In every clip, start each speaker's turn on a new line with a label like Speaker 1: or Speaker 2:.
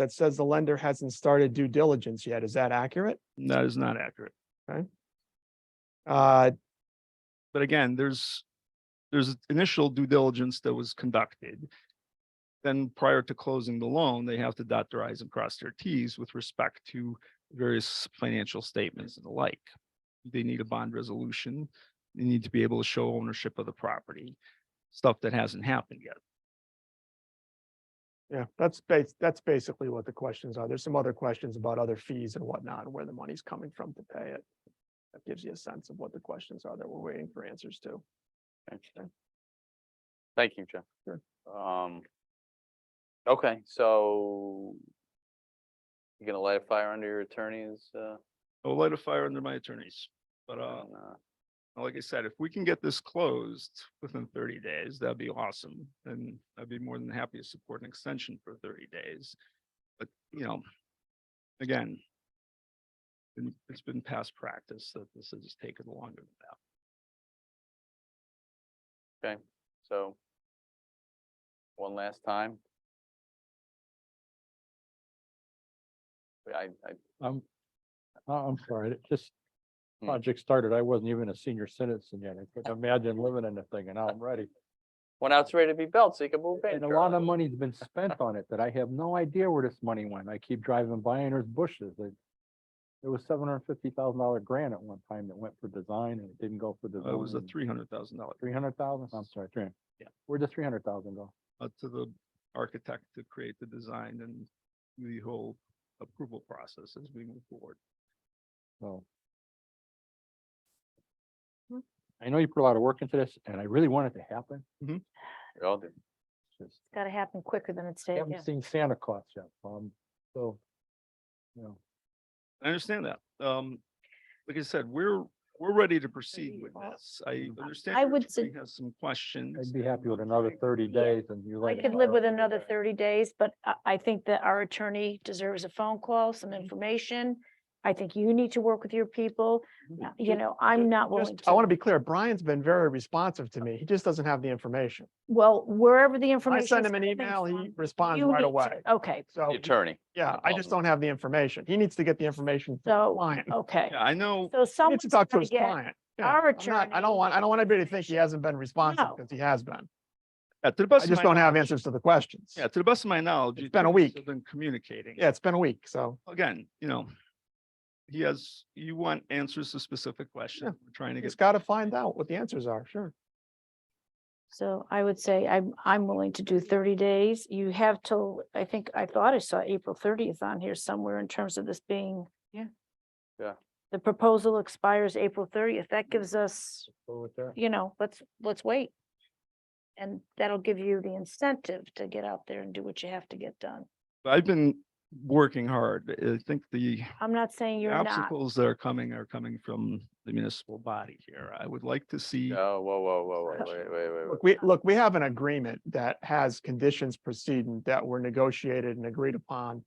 Speaker 1: that says the lender hasn't started due diligence yet. Is that accurate?
Speaker 2: That is not accurate.
Speaker 1: Uh,
Speaker 2: But again, there's, there's initial due diligence that was conducted. Then prior to closing the loan, they have to dot their i's and cross their t's with respect to various financial statements and the like. They need a bond resolution. They need to be able to show ownership of the property, stuff that hasn't happened yet.
Speaker 1: yeah, that's bas- that's basically what the questions are. There's some other questions about other fees and whatnot, and where the money's coming from to pay it. That gives you a sense of what the questions are that we're waiting for answers to.
Speaker 3: Interesting. Thank you, Jeff.
Speaker 1: Sure.
Speaker 3: Um, okay, so you gonna light a fire under your attorneys, uh,
Speaker 2: I'll light a fire under my attorneys, but uh,
Speaker 3: on, uh,
Speaker 2: like I said, if we can get this closed within thirty days, that'd be awesome. And I'd be more than happy to support an extension for thirty days. But, you know, again, and it's been past practice that this has taken longer than that.
Speaker 3: so one last time? Wait, I, I,
Speaker 4: I'm, I- I'm sorry, it just
Speaker 3: Hmm.
Speaker 4: project started, I wasn't even a senior citizen yet, I couldn't imagine living in the thing, and now I'm ready.
Speaker 3: when I was ready to be built, so you can move in.
Speaker 4: And a lot of
Speaker 3: Charlie.
Speaker 4: money's been spent on it that I have no idea where this money went, I keep driving by and there's bushes, it. It was seven hundred and fifty thousand dollar grant at one time that went for design and it didn't go for
Speaker 2: Uh, It was a
Speaker 4: design.
Speaker 2: three hundred thousand dollar,
Speaker 4: Three hundred thousand, I'm sorry, three.
Speaker 2: Yeah.
Speaker 4: Where'd the three hundred thousand go?
Speaker 2: uh, to the architect to create the design and the whole approval process as we move forward.
Speaker 4: So. I know you put a lot of work into this, and I really want it to happen,
Speaker 3: We all do.
Speaker 4: it's just.
Speaker 5: Got to happen quicker than it's
Speaker 4: I
Speaker 5: taken.
Speaker 4: haven't seen Santa Claus yet, um, so. You know,
Speaker 2: I understand that. Um, like I said, we're, we're ready to proceed
Speaker 5: you
Speaker 2: with
Speaker 5: all-
Speaker 2: this. I
Speaker 4: Mm.
Speaker 2: understand.
Speaker 5: Mm-hmm. I
Speaker 2: your
Speaker 5: would sug-
Speaker 2: attorney Has some questions.
Speaker 4: I'd be happy with
Speaker 2: I'm
Speaker 4: another
Speaker 2: trying-
Speaker 4: thirty days and you
Speaker 5: I
Speaker 4: like.
Speaker 5: could
Speaker 4: it.
Speaker 5: live with another thirty days, but I, I think that our attorney deserves a phone call, some
Speaker 1: Mm-hmm.
Speaker 5: information. I think you need to work with your people. Uh, You know, I'm not willing
Speaker 1: Just,
Speaker 5: to.
Speaker 1: I want to be clear, Brian's been very responsive to me. He just doesn't have the information.
Speaker 5: Well, wherever the
Speaker 1: I
Speaker 5: information.
Speaker 1: send
Speaker 5: is
Speaker 1: him an
Speaker 5: coming
Speaker 1: email, he
Speaker 5: from,
Speaker 1: responds
Speaker 5: you
Speaker 1: right
Speaker 5: need to-
Speaker 1: away.
Speaker 5: Okay,
Speaker 1: So,
Speaker 3: The Attorney.
Speaker 1: yeah, I just
Speaker 3: problem.
Speaker 1: don't have the information. He needs to get the information from the
Speaker 5: so,
Speaker 1: client.
Speaker 5: okay.
Speaker 2: Yeah, I know,
Speaker 5: So
Speaker 1: He
Speaker 5: someone.
Speaker 1: needs to talk to his client. Yeah,
Speaker 5: our
Speaker 1: I'm not- I
Speaker 5: attorney
Speaker 1: don't want, I don't want anybody to think he
Speaker 5: information.
Speaker 1: hasn't been responsive
Speaker 5: No.
Speaker 1: because he has been.
Speaker 2: yeah, to the
Speaker 1: I
Speaker 2: best. of
Speaker 1: just
Speaker 2: my
Speaker 1: don't have
Speaker 2: knowledge-
Speaker 1: answers to the questions.
Speaker 2: Yeah, to the best of my knowledge.
Speaker 1: It's
Speaker 2: the
Speaker 1: been a
Speaker 2: attorneys
Speaker 1: week.
Speaker 2: have Been communicating.
Speaker 1: Yeah, it's been a week, so.
Speaker 2: Again, you know, he has, you want answers to specific questions. We're trying to
Speaker 1: He's got
Speaker 2: get.
Speaker 1: to find out what the answers are, sure.
Speaker 5: So I would say I'm, I'm willing to do thirty days. You have till, I think, I thought I saw April thirtieth on here somewhere in terms of this being.
Speaker 3: Yeah. Yeah.
Speaker 5: The proposal expires April thirtieth. That gives us,
Speaker 4: Go with that.
Speaker 5: you know, let's, let's wait. And that'll give you the incentive to get out there and do what you have to get done.
Speaker 2: I've been working hard. I think the
Speaker 5: I'm not saying you're not.
Speaker 2: obstacles that are coming are coming from the municipal body here. I would like to see.
Speaker 3: Oh, whoa, whoa, whoa, whoa, wait, wait, wait, wait.
Speaker 1: Look, we, look, we have an agreement that has conditions precedent that were negotiated and agreed upon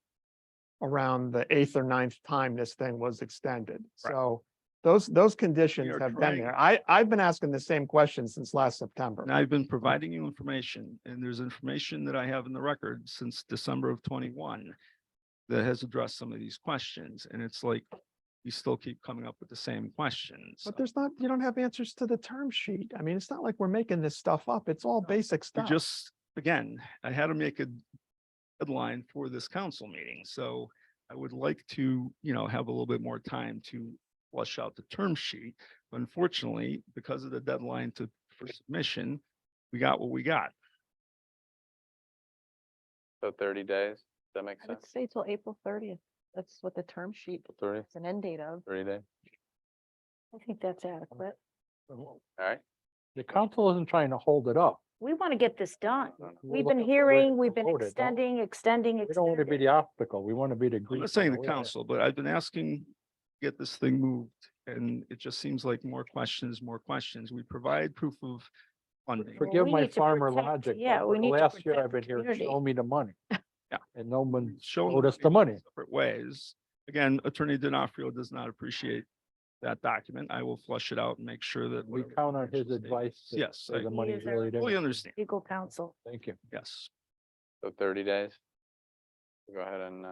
Speaker 1: around the eighth or ninth time this thing was extended. So those, those conditions
Speaker 2: are
Speaker 1: have been
Speaker 2: trying-
Speaker 1: there. I, I've been asking the same question since last September.
Speaker 2: And I've been providing you information, and there's information that I have in the record since December of twenty-one that has addressed some of these questions, and it's like, we still keep coming up with the same questions.
Speaker 1: But there's not, you don't have answers to the term sheet. I mean, it's not like we're making this stuff up. It's all basic
Speaker 2: We
Speaker 1: stuff.
Speaker 2: just, again, I had to make a deadline for this council meeting, so I would like to, you know, have a little bit more time to flush out the term sheet. But Unfortunately, because of the deadline to, for submission, we got what we got.
Speaker 3: So thirty days, Does that makes
Speaker 6: I
Speaker 3: sense?
Speaker 6: would say till April thirtieth. That's what the term sheet,
Speaker 3: Thirty,
Speaker 6: it's an end date of.
Speaker 3: thirty days,
Speaker 5: I think that's adequate.
Speaker 3: all right?
Speaker 4: The council isn't trying to hold it up.
Speaker 5: We want to get this done.
Speaker 3: No, no.
Speaker 4: We're
Speaker 5: We've been
Speaker 4: looking for ways
Speaker 5: hearing,
Speaker 4: to
Speaker 5: we've been
Speaker 4: promote it, don't-
Speaker 5: extending, extending,
Speaker 4: We don't want to be
Speaker 5: extending.
Speaker 4: the obstacle, we want to be the.
Speaker 2: I'm
Speaker 4: grease in
Speaker 2: not saying the
Speaker 4: wheel.
Speaker 2: council, but I've been asking, to get this thing moved, and it just seems like more questions, more questions. We provide proof of funding.
Speaker 5: Well,
Speaker 4: Forgive
Speaker 5: we
Speaker 4: my
Speaker 5: need to
Speaker 4: farmer
Speaker 5: protect-
Speaker 4: logic. but
Speaker 5: yeah,
Speaker 4: for
Speaker 5: we
Speaker 4: the
Speaker 5: need to
Speaker 4: Last year
Speaker 5: protect
Speaker 4: I've
Speaker 5: the
Speaker 4: been here,
Speaker 5: community.
Speaker 4: show me the money.
Speaker 2: Yeah.
Speaker 4: And no one,
Speaker 2: Show
Speaker 4: owed us the money.
Speaker 2: Separate ways. Again, Attorney Denofrio does not appreciate that document. I will flush it out and make sure that.
Speaker 4: we
Speaker 2: whatever
Speaker 4: count on his
Speaker 2: financial
Speaker 4: advice.
Speaker 2: statements- Yes,
Speaker 4: that
Speaker 2: I
Speaker 4: The money's
Speaker 5: is our-
Speaker 4: really there.
Speaker 2: fully understand.
Speaker 5: Legal counsel.
Speaker 4: Thank you.
Speaker 2: Yes.
Speaker 3: So thirty days, Go ahead and, uh.